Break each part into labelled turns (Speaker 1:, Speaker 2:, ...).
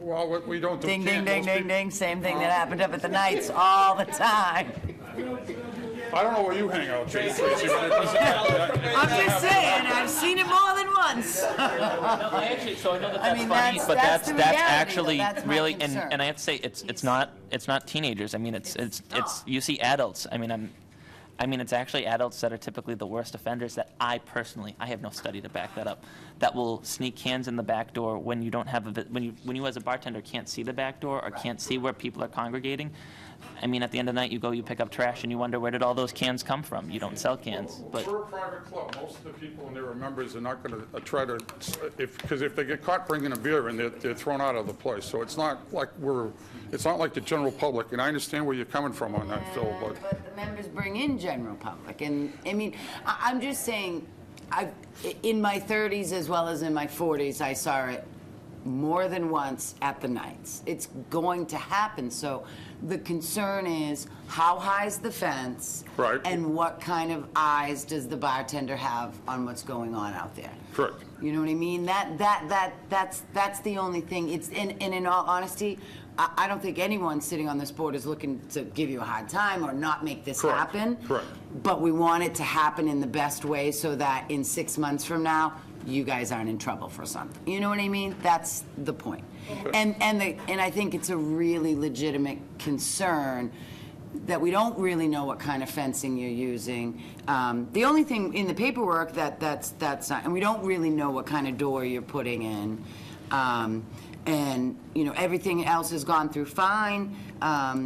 Speaker 1: Well, we- we don't do
Speaker 2: Ding, ding,
Speaker 1: candles.
Speaker 2: ding, ding,
Speaker 1: Pe-
Speaker 2: ding, same thing
Speaker 1: Oh.
Speaker 2: that happened up at the Knights all the time.
Speaker 1: I don't know where you hang out, Tracy, Tracy, but it doesn't
Speaker 2: I'm
Speaker 1: happen.
Speaker 2: just saying, I've seen it more than once.
Speaker 3: No, actually, so I know that
Speaker 2: I
Speaker 3: that's
Speaker 2: mean,
Speaker 3: funny,
Speaker 2: that's-
Speaker 3: but
Speaker 2: that's
Speaker 3: that's,
Speaker 2: the
Speaker 3: that's
Speaker 2: reality, though.
Speaker 3: actually
Speaker 2: That's my
Speaker 3: really, and,
Speaker 2: concern.
Speaker 3: and I have to say, it's, it's not, it's not teenagers. I mean, it's, it's, it's, you see adults. I mean, I'm, I mean, it's actually adults that are typically the worst offenders that I personally, I have no study to back that up, that will sneak cans in the back door when you don't have a, vi- when you, when you as a bartender can't see the back door or can't see where people are congregating. I mean, at the end of the night, you go, you pick up trash and you wonder, where did all those cans come from? You don't sell cans, but.
Speaker 1: We're a private club. Most of the people and their members are not going to try to, if, because if they get caught bringing a beer in, they're, they're thrown out of the place. So it's not like we're, it's not like the general public, and I understand where you're coming from on that, Phil, but.
Speaker 2: But the members bring in general public, and, I mean, I, I'm just saying, I, in my thirties as well as in my forties, I saw it more than once at the nights. It's going to happen, so the concern is, how high's the fence?
Speaker 1: Right.
Speaker 2: And what kind of eyes does the bartender have on what's going on out there?
Speaker 1: Correct.
Speaker 2: You know what I mean? That, that, that, that's, that's the only thing. It's, and, and in all honesty, I, I don't think anyone sitting on this board is looking to give you a hard time or not make this
Speaker 1: Correct.
Speaker 2: happen.
Speaker 1: Correct.
Speaker 2: But we want it to happen in the best way so that in six months from now, you guys aren't in trouble for something. You know what I mean? That's the point. And, and the, and I think it's a really legitimate concern that we don't really know what kind of fencing you're using. Um, The only thing in the paperwork that, that's, that's not, and we don't really know what kind of door you're putting in. Um, And, you know, everything else has gone through fine. Um,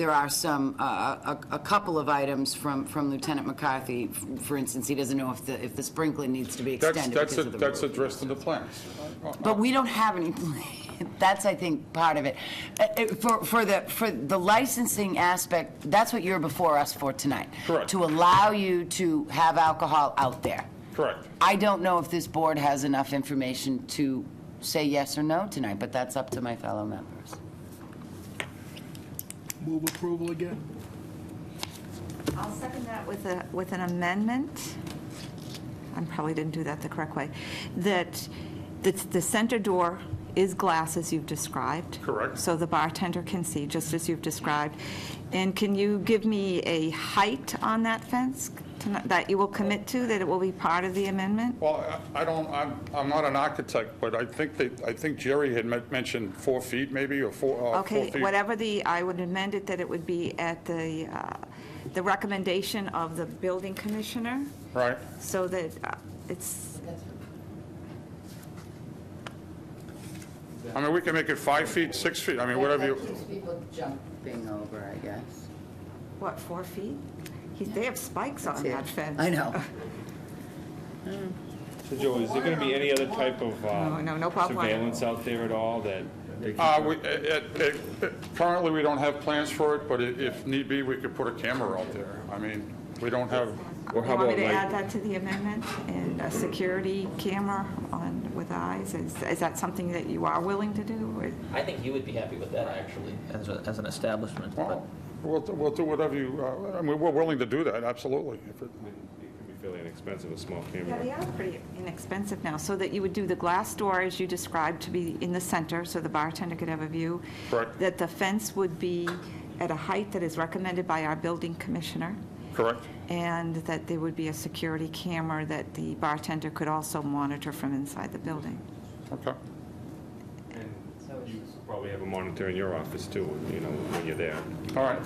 Speaker 2: There are some, uh, a, a couple of items from, from Lieutenant McCarthy, F- for instance, he doesn't know if the, if the sprinkler needs to be
Speaker 1: That's,
Speaker 2: extended
Speaker 1: that's,
Speaker 2: because
Speaker 1: a-
Speaker 2: of the
Speaker 1: that's
Speaker 2: roof.
Speaker 1: addressed in the plans. Uh,
Speaker 2: But we don't have any, plan. that's, I think, part of it. Uh, uh, For, for the, for the licensing aspect, that's what you're before us for tonight.
Speaker 1: Correct.
Speaker 2: To allow you to have alcohol out there.
Speaker 1: Correct.
Speaker 2: I don't know if this board has enough information to say yes or no tonight, but that's up to my fellow members.
Speaker 4: Move approval again.
Speaker 5: I'll second that with a, with an amendment. I probably didn't do that the correct way. That the, the center door is glass as you've described.
Speaker 1: Correct.
Speaker 5: So the bartender can see, just as you've described. And can you give me a height on that fence tonight- that you will commit to, that it will be part of the amendment?
Speaker 1: Well, I I don't, I'm, I'm not an architect, but I think that, I think Jerry had men- mentioned four feet maybe, or four, uh, four
Speaker 5: Okay,
Speaker 1: feet.
Speaker 5: whatever the, I would amend it that it would be at the, uh, the recommendation of the building commissioner,
Speaker 1: Right.
Speaker 5: so that uh, it's,
Speaker 1: I mean, we can make it five feet, six feet, I mean, whatever you.
Speaker 2: People jumping over, I guess.
Speaker 5: what, four feet? He- They have spikes on
Speaker 2: it.
Speaker 5: that fence.
Speaker 2: I know.
Speaker 6: So Joe, is there gonna be any other type of
Speaker 5: No,
Speaker 6: uh,
Speaker 5: no, no pop line.
Speaker 6: surveillance out there at all that? they can-
Speaker 1: Uh, we, it, it, it- currently, we don't have plans for it, but i- if need be, we could put a camera out there. I mean, we don't have,
Speaker 6: Or
Speaker 5: You
Speaker 6: how
Speaker 5: want me
Speaker 6: about
Speaker 5: to add
Speaker 6: like,
Speaker 5: that to the amendment, and a security camera on, with eyes? Is, is that something that you are willing to do? Or-
Speaker 3: I think you would be happy with that, actually, as, a, as an establishment.
Speaker 1: well, we'll, we'll do whatever you, uh, I mean, we're willing to do that, absolutely. If it-
Speaker 6: it can be fairly inexpensive, a small
Speaker 5: Yeah, they
Speaker 6: camera?
Speaker 5: are pretty inexpensive now, so that you would do the glass door, as you described, to be in the center, so the bartender could have a view.
Speaker 1: Correct.
Speaker 5: That the fence would be at a height that is recommended by our building commissioner,
Speaker 1: Correct?
Speaker 5: and that there would be a security camera that the bartender could also monitor from inside the building.
Speaker 1: Okay.
Speaker 6: And you Probably have a monitor in your office too, you know, when you're there.
Speaker 1: All right.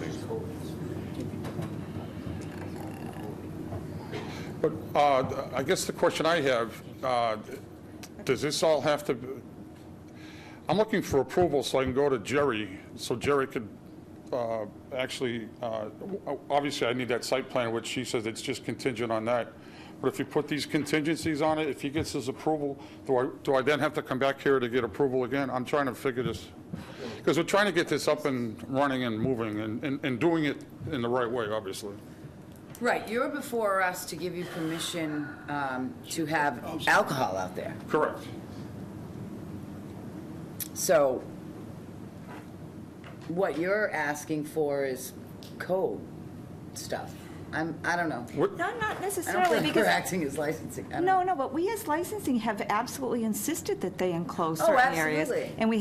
Speaker 1: But uh, I guess the question I have, uh, does this all have to, I'm looking for approval so I can go to Jerry, so Jerry could uh, actually, uh, obviously, I need that site plan, which she says it's just contingent on that. But if you put these contingencies on it, if he gets his approval, do I, do I then have to come back here to get approval again? I'm trying to figure this, because we're trying to get this up and running and moving and, and- and doing it in the right way, obviously.
Speaker 2: Right, you're before us to give you permission um, to have alcohol out there.
Speaker 1: Correct.
Speaker 2: So what you're asking for is code stuff. I'm, I don't know.
Speaker 5: No, not
Speaker 2: I don't
Speaker 5: necessarily,
Speaker 2: think we're
Speaker 5: because,
Speaker 2: acting as licensing. I don't know.
Speaker 5: no, no, but we as licensing have absolutely insisted that they enclose
Speaker 2: Oh,
Speaker 5: certain areas.
Speaker 2: absolutely.
Speaker 5: And we